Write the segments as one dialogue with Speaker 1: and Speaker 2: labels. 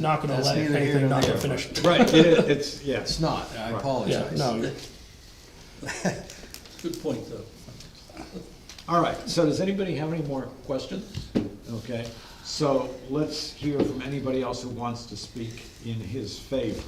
Speaker 1: not gonna
Speaker 2: That's
Speaker 1: let
Speaker 2: neither here
Speaker 1: anything
Speaker 2: nor
Speaker 1: not get
Speaker 2: there.
Speaker 1: finished.
Speaker 3: Right, it, it's,
Speaker 2: It's
Speaker 3: yes.
Speaker 2: not, I
Speaker 3: Right.
Speaker 1: Yeah,
Speaker 2: apologize.
Speaker 1: no,
Speaker 3: Good point, though. All right, so does anybody have any more questions? Okay, so let's hear from anybody else who wants to speak in his favor.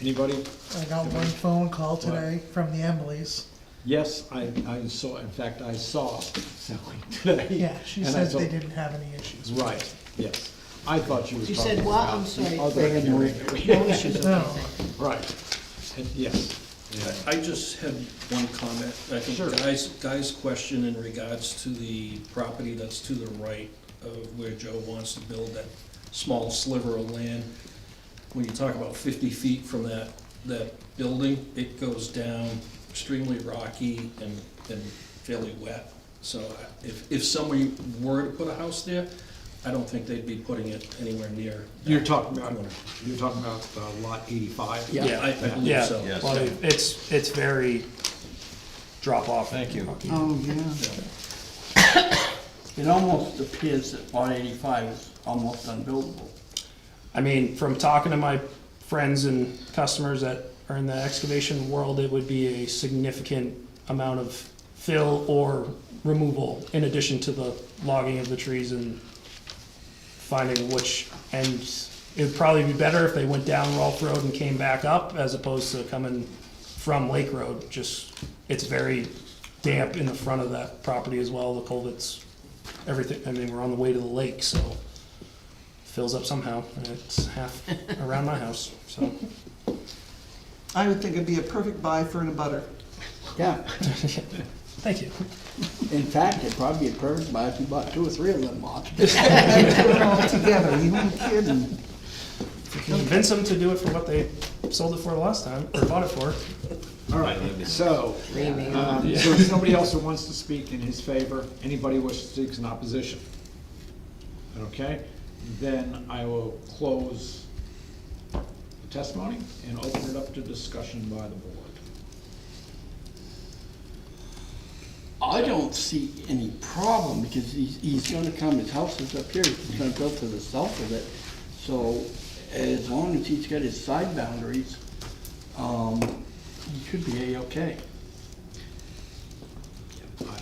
Speaker 3: Anybody?
Speaker 4: I got one phone call today from the Embleys.
Speaker 3: Yes, I, I saw, in fact, I saw Sally today.
Speaker 4: Yeah, she
Speaker 3: and I
Speaker 4: said
Speaker 3: thought-
Speaker 4: they didn't have any issues.
Speaker 3: Right, yes. I thought she was
Speaker 5: You
Speaker 3: talking
Speaker 5: said what? I'm
Speaker 3: about the
Speaker 5: sorry.
Speaker 3: other
Speaker 2: They had no-
Speaker 3: hearing that we had.
Speaker 5: No issues, okay,
Speaker 4: No.
Speaker 5: thank you.
Speaker 3: Right, and yes. yeah.
Speaker 6: I just had one comment. I
Speaker 3: Sure.
Speaker 6: think Guy's, Guy's question in regards to the property that's to the right of where Joe wants to build that small sliver of land. When you talk about fifty feet from that, that building, it goes down extremely rocky and, and fairly wet. So I- if, if somebody were to put a house there, I don't think they'd be putting it anywhere near. that
Speaker 3: You're talking about,
Speaker 6: corner.
Speaker 3: you're talking about uh, lot eighty-five?
Speaker 1: Yeah.
Speaker 6: Yeah, I, I believe
Speaker 1: yeah,
Speaker 6: so.
Speaker 1: well, it's, it's very drop off.
Speaker 3: Thank you.
Speaker 2: Oh, yeah.
Speaker 7: It almost appears that lot eighty-five is almost unbuildable.
Speaker 1: I mean, from talking to my friends and customers that are in the excavation world, it would be a significant amount of fill or removal in addition to the logging of the trees and finding which ends. It would probably be better if they went down Rolf Road and came back up as opposed to coming from Lake Road. Just, it's very damp in the front of that property as well, the culverts, everything. I mean, we're on the way to the lake, so fills up somehow, and it's half around my house. So
Speaker 8: I would think it'd be a perfect buy for an abutter.
Speaker 7: Yeah,
Speaker 1: thank you.
Speaker 7: in fact, it'd probably be a perfect buy if you bought two or three of them lots.
Speaker 8: And put it all together, you ain't kidding.
Speaker 1: Convince them to do it for what they sold it for the last time or bought it for.
Speaker 3: All right, so, um, so is somebody else who wants to speak in his favor, anybody who speaks in opposition? Okay, then I will close the testimony and open it up to discussion by the board.
Speaker 7: I don't see any problem, because he's, he's gonna come, his house is up here, he's gonna build to the south of it. So as long as he's got his side boundaries, um, he should be A-okay.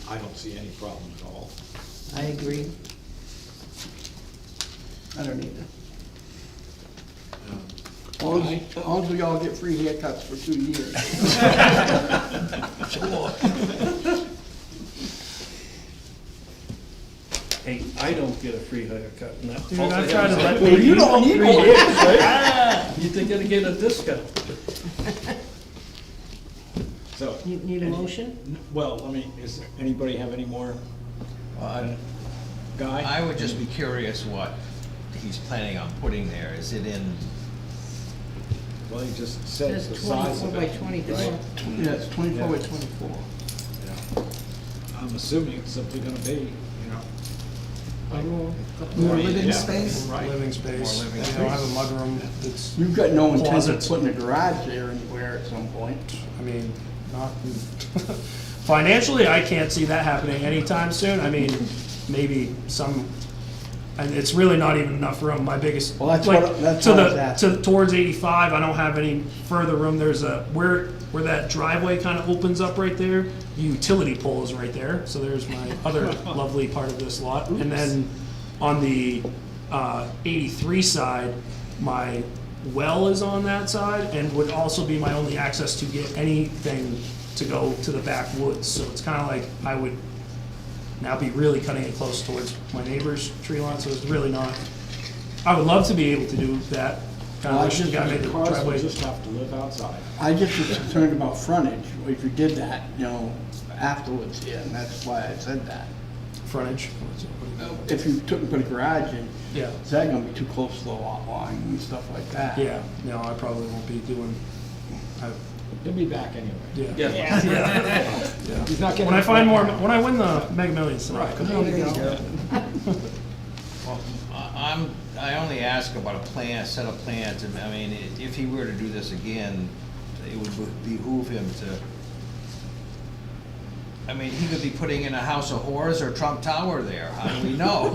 Speaker 3: I, I don't see any problem at all.
Speaker 5: I agree.
Speaker 7: I don't either. As long as, as long as we all get free haircuts for two years.
Speaker 6: Hey, I don't get a free haircut, and that
Speaker 1: Dude,
Speaker 6: fault I
Speaker 1: I've
Speaker 6: have
Speaker 1: tried to
Speaker 6: is
Speaker 1: let
Speaker 6: I-
Speaker 1: people.
Speaker 7: don't need one.
Speaker 6: You think I'd get a discount?
Speaker 3: So,
Speaker 5: You Need a motion?
Speaker 3: n- well, I mean, is, anybody have any more? uh, Guy?
Speaker 9: Uh, I would just be curious what he's planning on putting there. Is it in,
Speaker 3: Well, he just said
Speaker 5: Says
Speaker 3: the size
Speaker 5: twenty-four
Speaker 3: of
Speaker 5: by
Speaker 3: it.
Speaker 5: twenty-four.
Speaker 7: Yeah, it's twenty-four by twenty-four.
Speaker 3: Yeah. I'm assuming it's simply gonna be, you know,
Speaker 5: A little- couple
Speaker 8: More
Speaker 5: more.
Speaker 8: living
Speaker 3: yeah.
Speaker 8: space.
Speaker 3: Right.
Speaker 1: Living space.
Speaker 9: More living
Speaker 1: you know, I have a mudroom. That's
Speaker 7: You've got no intent of
Speaker 1: Closets.
Speaker 7: putting a garage there anywhere at some point.
Speaker 1: I mean, not financially. I can't see that happening anytime soon. I mean, maybe some. And it's really not even enough room. My biggest,
Speaker 7: Well, that's
Speaker 1: like,
Speaker 7: what- that's
Speaker 1: to
Speaker 7: what I
Speaker 1: the
Speaker 7: was asking.
Speaker 1: to towards 85. I don't have any further room. There's a where where that driveway kind of opens up right there. Utility pole is right there. So there's my other lovely part of this lot. And then on the uh, 83 side, my well is on that side and would also be my only access to get anything to go to the backwoods. So it's kind of like I would now be really cutting it close towards my neighbor's tree line. So it's really not. I would love to be able to do that. Kind
Speaker 7: Well, I
Speaker 1: of just
Speaker 7: think
Speaker 1: gotta make the
Speaker 3: The cars will
Speaker 1: driveway.
Speaker 3: just have to live outside.
Speaker 7: I just was concerned about frontage, if you did that, you know, afterwards, yeah, and that's why I said that.
Speaker 1: frontage.
Speaker 7: If you took and put a garage in,
Speaker 1: Yeah,
Speaker 7: is that gonna be too close to the lot line and stuff like that?
Speaker 1: yeah, no, I probably won't be doing, I,
Speaker 3: He'll be back anyway.
Speaker 1: yeah.
Speaker 6: Yeah.
Speaker 3: He's not getting.
Speaker 1: When I find more, when I win the Mega Millions, then I'll come
Speaker 8: There you go.
Speaker 9: well, I- I'm, I only ask about a plan, a set of plans, and I mean, i- if he were to do this again, it would be- behoove him to, I mean, he could be putting in a house of horrors or Trump Tower there, how do we know?